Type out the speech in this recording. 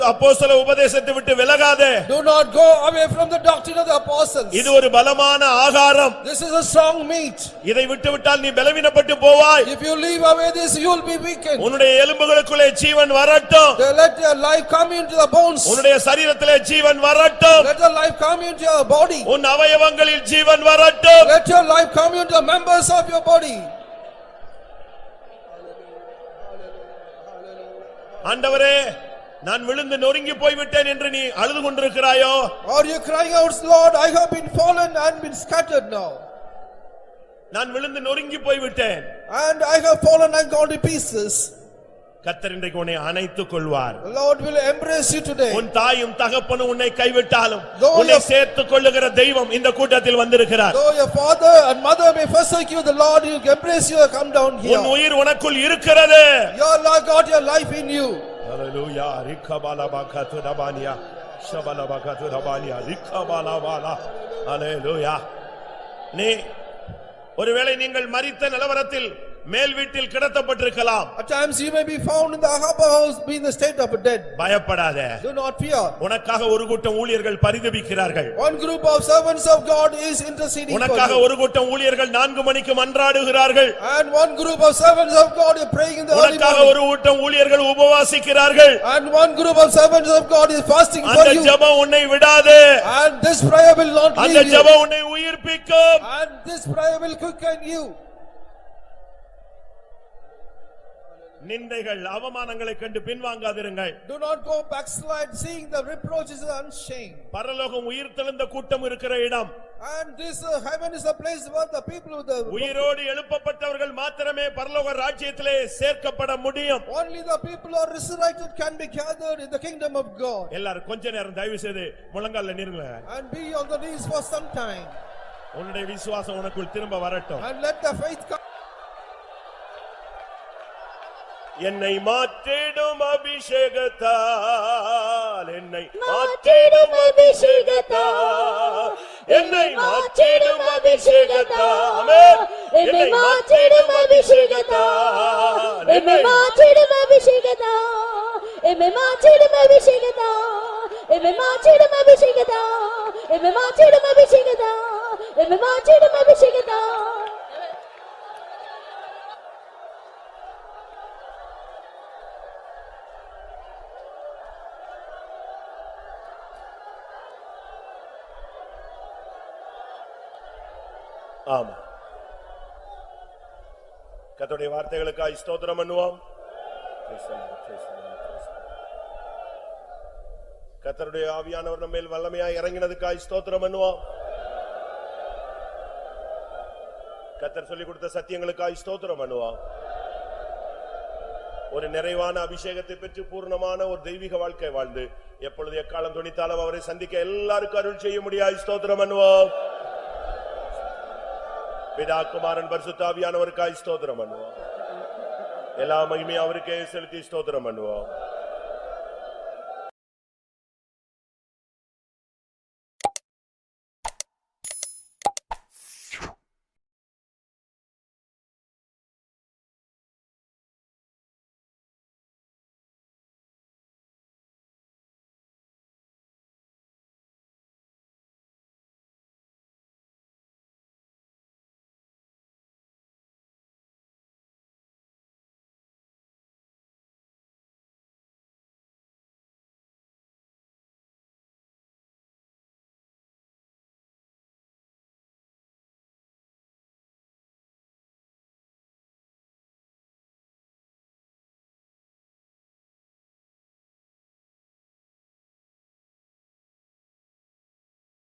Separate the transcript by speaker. Speaker 1: அப்போஸ்தல உபதேசத்தை விட்டு விலகாதே
Speaker 2: Do not go away from the doctrine of the apostles.
Speaker 1: இது ஒரு பலமான ஆகாரம்
Speaker 2: This is a strong meat.
Speaker 1: இதை விட்டுவிட்டால் நீ பலவீனப்பட்டு போவாய்
Speaker 2: If you leave away this, you will be weakened.
Speaker 1: உன்னுடைய எலும்புகளுக்குள்ளே ஜீவன் வரட்டும்
Speaker 2: They Let your life come into the bones.
Speaker 1: உன்னுடைய சரீரத்திலே ஜீவன் வரட்டும்
Speaker 2: Let your life come into your body.
Speaker 1: உன் அவயவங்களில் ஜீவன் வரட்டும்
Speaker 2: Let your life come into the members of your body.
Speaker 1: ஆண்டவரே நான் விழுந்து நொறுங்கி போய்விட்டேன் என்று நீ அழுது கொண்டிருக்கிறாயோ
Speaker 2: Are you crying out, Lord, I have been fallen and been scattered now.
Speaker 1: நான் விழுந்து நொறுங்கி போய்விட்டேன்
Speaker 2: And I have fallen and gone to pieces.
Speaker 1: கத்தர் இன்றைக்கு உன்னை அணைத்துக் கொள்வார்
Speaker 2: The Lord will embrace you today.
Speaker 1: உன் தாயும் தகப்பனும் உன்னை கைவிட்டாலும்
Speaker 2: Though
Speaker 1: உன்னை
Speaker 2: your-
Speaker 1: சேர்த்துக் கொள்ளுகிற தெய்வம் இந்த கூட்டத்தில் வந்திருக்கிறார்
Speaker 2: Though your father and mother may forsake you, the Lord will embrace you and come down
Speaker 1: உன்
Speaker 2: here.
Speaker 1: உயிர் உனக்குள் இருக்கிறது
Speaker 2: Your Lord got your life in you.
Speaker 1: ஹalleluya ரிக்கபாலபகதுரபானியா ஷபலபகதுரபானியா ரிக்கபாலபாலா ஹalleluya நீ ஒருவேளை நீங்கள் மரித்த நிலவரத்தில் மேல் வீட்டில் கிடத்தப்பட்டிருக்கலாம்
Speaker 2: At times you may be found in the upper house, be in the state of dead.
Speaker 1: பயப்படாதே
Speaker 2: Do not fear.
Speaker 1: உனக்காக ஒரு கூட்டம் ஊழியர்கள் பரிதபிக்கிறார்கள்
Speaker 2: One group of servants of God is interceding for
Speaker 1: உனக்காக
Speaker 2: you.
Speaker 1: ஒரு கூட்டம் ஊழியர்கள் நான்கு மணிக்கு மன்றாடுகிறார்கள்
Speaker 2: And one group of servants of God is praying in the early
Speaker 1: உனக்காக
Speaker 2: morning.
Speaker 1: ஒரு கூட்டம் ஊழியர்கள் உபவாசிக்கிறார்கள்
Speaker 2: And one group of servants of God is fasting for
Speaker 1: அந்த
Speaker 2: you.
Speaker 1: ஜெபம் உன்னை விடாது
Speaker 2: And this prayer will not
Speaker 1: அந்த
Speaker 2: leave you.
Speaker 1: ஜெபம் உன்னை உயிர்ப்பிக்கும்
Speaker 2: And this prayer will quicken you.
Speaker 1: நிந்தைகள் அவமானங்களை கண்டு பின்வாங்காதிருங்கள்
Speaker 2: Do not go backslide, seeing the reproaches and shame.
Speaker 1: பரலோகம் உயிர் தெழுந்த கூட்டம் இருக்கிற இடம்
Speaker 2: And this uh, heaven is a place where the people with the,
Speaker 1: உயிரோடு எழுப்பப்பட்டவர்கள் மாத்திரமே பரலோக ராஜ்யத்திலே சேர்க்கப்பட முடியும்
Speaker 2: only the people who are resurrected can be gathered in the kingdom of God.
Speaker 1: எல்லாரும் கொஞ்ச நேரம் தயவு செய்து முழங்கால நிறுங்க
Speaker 2: And be on the knees for some time.
Speaker 1: உன்னுடைய விசுவாசம் உனக்குள் திரும்ப வரட்டும்
Speaker 2: And let the faith come.
Speaker 1: என்னை மாற்றிடும் அபிஷேகத்தால் என்னை மாற்றிடும் அபிஷேகத்தால் என்னை மாற்றிடும் அபிஷேகத்தால் ஆமென். என்னை மாற்றிடும் அபிஷேகத்தால்
Speaker 3: எம்மை
Speaker 1: என்னை
Speaker 3: மாற்றிடும் அபிஷேகதா எம்மை மாற்றிடும் அபிஷேகதா எம்மை மாற்றிடும் அபிஷேகதா எம்மை மாற்றிடும் அபிஷேகதா எம்மை மாற்றிடும் அபிஷேகதா
Speaker 1: ஆமா கர்த்தருடைய வார்த்தைகளுக்காய் ஸ்தோத்திரம் பண்ணுவோம் Praise the Lord, praise the Lord, praise the Lord. கர்த்தருடைய ஆவியானவர் நம்ம மேல் வல்லமையாய் இறங்கினதுக்காய் ஸ்தோத்திரம் பண்ணுவோம் கத்தர் சொல்லிக் கொடுத்த சத்தியங்களுக்காய் ஸ்தோத்திரம் பண்ணுவோம் ஒரு நிறைவான அபிஷேகத்தை பெற்று பூர்ணமான ஒரு தெய்வீக வாழ்க்கை வாழ்ந்து எப்பொழுது எக்காலம் துணித்தாலும் அவரை சந்திக்க எல்லாருக்கும் அருள் செய்ய முடியாய் ஸ்தோத்திரம் பண்ணுவோம் பிதா குமாரன் பரிசுத்தாவியானவருக்காய் ஸ்தோத்திரம் பண்ணுவோம் எல்லா மகிமையும் அவருக்கே செலுத்தி ஸ்தோத்திரம் பண்ணுவோம்